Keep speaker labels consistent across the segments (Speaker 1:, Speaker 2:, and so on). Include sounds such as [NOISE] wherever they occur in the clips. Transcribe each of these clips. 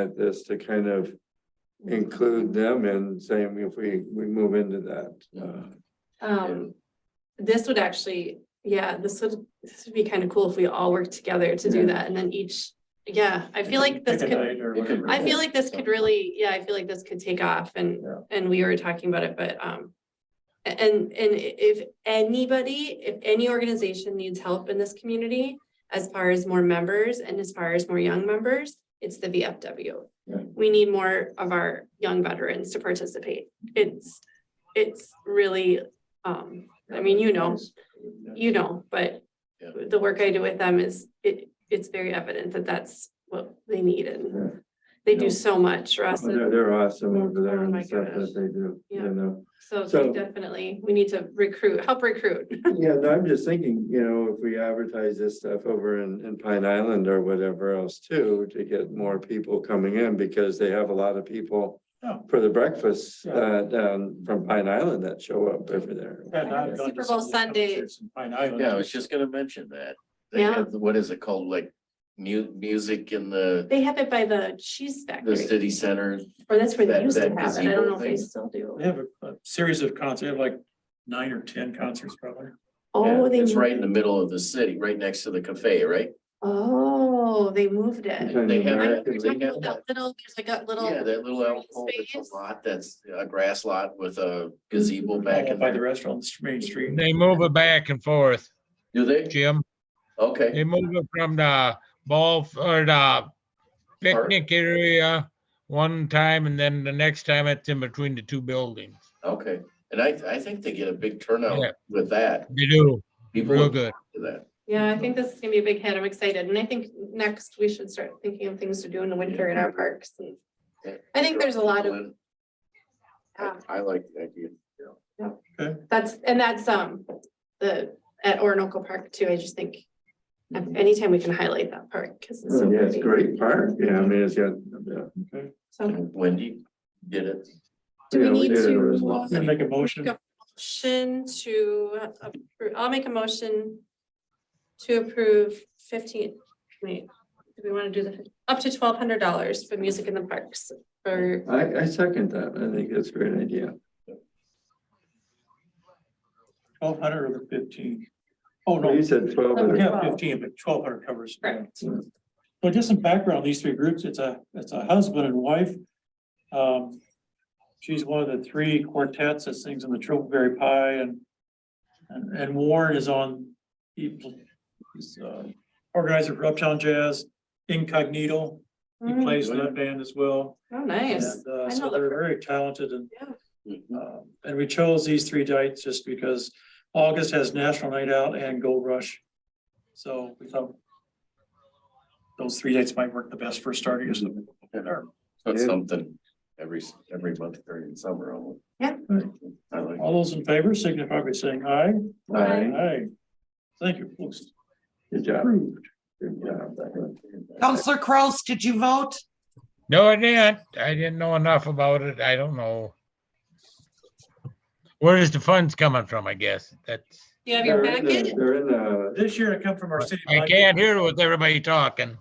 Speaker 1: at this to kind of
Speaker 2: Mm.
Speaker 1: include them in saying if we, we move into that. uh,
Speaker 2: Um, this would actually, yeah, this would, this would be kind of cool if we all worked together to
Speaker 1: Yeah.
Speaker 2: do that and then each, yeah, I feel like this
Speaker 1: pick a
Speaker 2: could,
Speaker 1: night or
Speaker 3: it could-
Speaker 1: whatever.
Speaker 2: I feel like this could really, yeah, I feel like this could take off and,
Speaker 1: Yeah.
Speaker 2: and we were talking about it, but, um, and, and if anybody, if any organization needs help in this community, as far as more members and as far as more young members, it's the VFW.
Speaker 1: Yeah.
Speaker 2: We need more of our young veterans to participate. It's, it's really, um, I mean, you know, you know, but
Speaker 3: Yeah.
Speaker 2: the work I do with them is, it, it's very evident that that's what they need and
Speaker 1: Yeah.
Speaker 2: they
Speaker 1: Yeah.
Speaker 2: do so much for us.
Speaker 1: They're, they're awesome over there
Speaker 2: Oh
Speaker 1: and
Speaker 2: my
Speaker 1: the stuff that
Speaker 2: gosh.
Speaker 1: they do,
Speaker 2: Yeah.
Speaker 1: you know.
Speaker 2: So
Speaker 1: So-
Speaker 2: they definitely, we need to recruit, help recruit.
Speaker 1: [LAUGHS] Yeah, no, I'm just thinking, you know, if we advertise this stuff over in, in Pine Island or whatever else too, to get more people coming in because they have a lot of people
Speaker 4: Yeah.
Speaker 1: for the breakfast,
Speaker 4: Yeah.
Speaker 1: uh, down from Pine Island that show up over there.
Speaker 4: And I've gone to
Speaker 2: Super
Speaker 4: some
Speaker 2: Bowl
Speaker 4: of the
Speaker 2: Sunday.
Speaker 4: concerts in Pine Island.
Speaker 3: Yeah, I was just gonna mention that. They
Speaker 2: Yeah.
Speaker 3: have, what is it called, like mu- music in the,
Speaker 2: They have it by the cheese
Speaker 3: the
Speaker 2: factory,
Speaker 3: city center?
Speaker 2: or that's where they
Speaker 3: that-
Speaker 2: used to
Speaker 3: that
Speaker 2: have it. I don't
Speaker 3: gazebo
Speaker 2: know if they
Speaker 3: thing.
Speaker 2: still do.
Speaker 4: They have a, a series of concerts, they have like nine or ten concerts probably.
Speaker 2: Oh, they,
Speaker 3: It's
Speaker 2: moved-
Speaker 3: right in the middle of the city, right next to the cafe, right?
Speaker 2: oh, they moved it.
Speaker 1: Kind
Speaker 3: They
Speaker 1: of
Speaker 3: have
Speaker 2: I know
Speaker 1: American
Speaker 2: We're
Speaker 3: they
Speaker 2: talking
Speaker 3: have
Speaker 2: about that little, there's like a
Speaker 3: Yeah,
Speaker 2: little,
Speaker 3: that little
Speaker 2: green
Speaker 3: alcove, it's
Speaker 2: space.
Speaker 3: a lot, that's a grass lot with
Speaker 5: Mm-hmm.
Speaker 3: a gazebo back
Speaker 4: All
Speaker 3: in
Speaker 4: By the
Speaker 3: there.
Speaker 4: restaurant, on the main street.
Speaker 5: They move it back and forth,
Speaker 3: Do they?
Speaker 5: Jim.
Speaker 3: Okay,
Speaker 5: They move it from the ball f- or the picnic area one time and then the next time it's in between the two buildings.
Speaker 3: okay. And I, I think they get a big
Speaker 5: Yeah.
Speaker 3: turnout with that.
Speaker 5: They do,
Speaker 3: People
Speaker 5: real
Speaker 3: look
Speaker 5: good.
Speaker 3: to that.
Speaker 2: yeah, I think this is gonna be a big hit. I'm excited. And I think next we should start thinking of things to do in the winter in our parks. and- I think there's a lot of,
Speaker 3: I
Speaker 2: um,
Speaker 3: I like the idea.
Speaker 2: That's, and that's, um, the, at Orinoco Park too, I just think. Anytime we can highlight that park, cause it's so
Speaker 1: Oh, Yeah, it's
Speaker 2: pretty.
Speaker 1: a great park. Yeah, I mean, it's got, yeah.
Speaker 2: So,
Speaker 3: Wendy did it.
Speaker 2: do we
Speaker 1: Yeah,
Speaker 2: need
Speaker 1: did it as
Speaker 2: to?
Speaker 1: well.
Speaker 4: Gonna make a motion.
Speaker 2: Go. Motion to, appro- I'll make a motion. To approve fifteen, wait, do we wanna do the, up to twelve hundred dollars for music in the parks? Or,
Speaker 1: I, I second that. I think that's a great idea.
Speaker 4: Twelve hundred or the fifteen? Oh,
Speaker 1: Well,
Speaker 4: no,
Speaker 1: You said twelve.
Speaker 2: Okay.
Speaker 1: and-
Speaker 4: yeah, fifteen, but twelve hundred covers.
Speaker 2: Correct.
Speaker 4: Well, just some background, these three groups, it's a, it's a husband and wife. Um, she's one of the three quartets that sings in the Trillberry Pie and, and, and Warren is on, he, he's, uh, organizer for Uptown Jazz, Incognito, he
Speaker 2: Mm,
Speaker 4: plays in that band as well.
Speaker 2: oh, nice.
Speaker 4: And, uh,
Speaker 2: I
Speaker 4: so
Speaker 2: know the
Speaker 4: they're
Speaker 2: per-
Speaker 4: very talented and
Speaker 3: Mhm.
Speaker 4: um, and we chose these three dates just because August has National Night Out and Gold Rush. So we thought those three dates might work the best for starting us.
Speaker 3: That's
Speaker 1: Yeah.
Speaker 3: something every, s- every month during the summer. I'll-
Speaker 2: Yeah.
Speaker 3: I like.
Speaker 4: All those in favor signify by saying aye.
Speaker 1: Aye.
Speaker 4: Aye. Thank you. folks.
Speaker 1: Good job.
Speaker 4: Approved.
Speaker 1: Good job.
Speaker 6: Counselor Kraus, did you vote?
Speaker 5: No, I didn't. I didn't know enough about it. I don't know. Where is the funds coming from, I guess? That's,
Speaker 2: You have your
Speaker 1: They're in the-
Speaker 2: packet?
Speaker 1: They're in the,
Speaker 4: This year it come from our city.
Speaker 5: I
Speaker 4: budget.
Speaker 5: can't hear with everybody talking.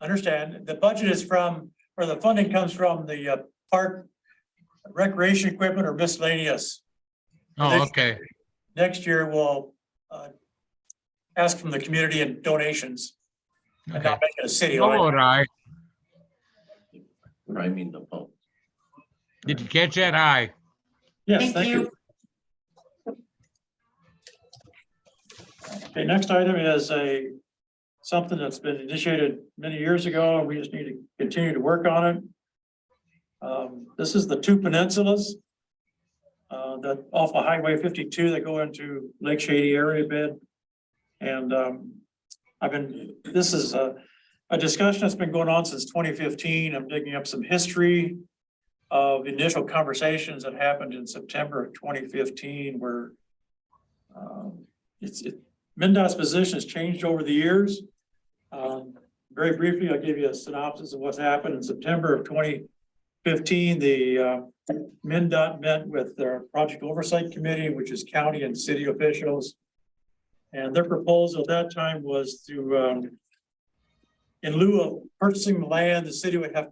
Speaker 4: Understand, the budget is from, or the funding comes from the uh, park recreation equipment or miscellaneous.
Speaker 5: Oh, okay.
Speaker 4: Next year, we'll uh, ask from the community and donations. And
Speaker 5: Okay. Oh,
Speaker 4: not make it a city
Speaker 5: All
Speaker 4: line.
Speaker 5: right.
Speaker 3: I mean, the pump.
Speaker 5: Did you catch that? Aye.
Speaker 4: Yes,
Speaker 6: Thank you.
Speaker 4: Okay, next item is a, something that's been initiated many years ago, and we just need to continue to work on it. Um, This is the two peninsulas uh, that off of Highway fifty-two that go into Lake Shady area bed. And um, I've been, this is a, a discussion that's been going on since twenty fifteen. I'm digging up some history of initial conversations that happened in September of twenty fifteen where um, it's, it, MinDOT's position has changed over the years. Um, very briefly, I'll give you a synopsis of what's happened in September of twenty fifteen. The, uh, MinDOT met with their project oversight committee, which is county and city officials. And their proposal at that time was to, um, in lieu of purchasing the land, the city would have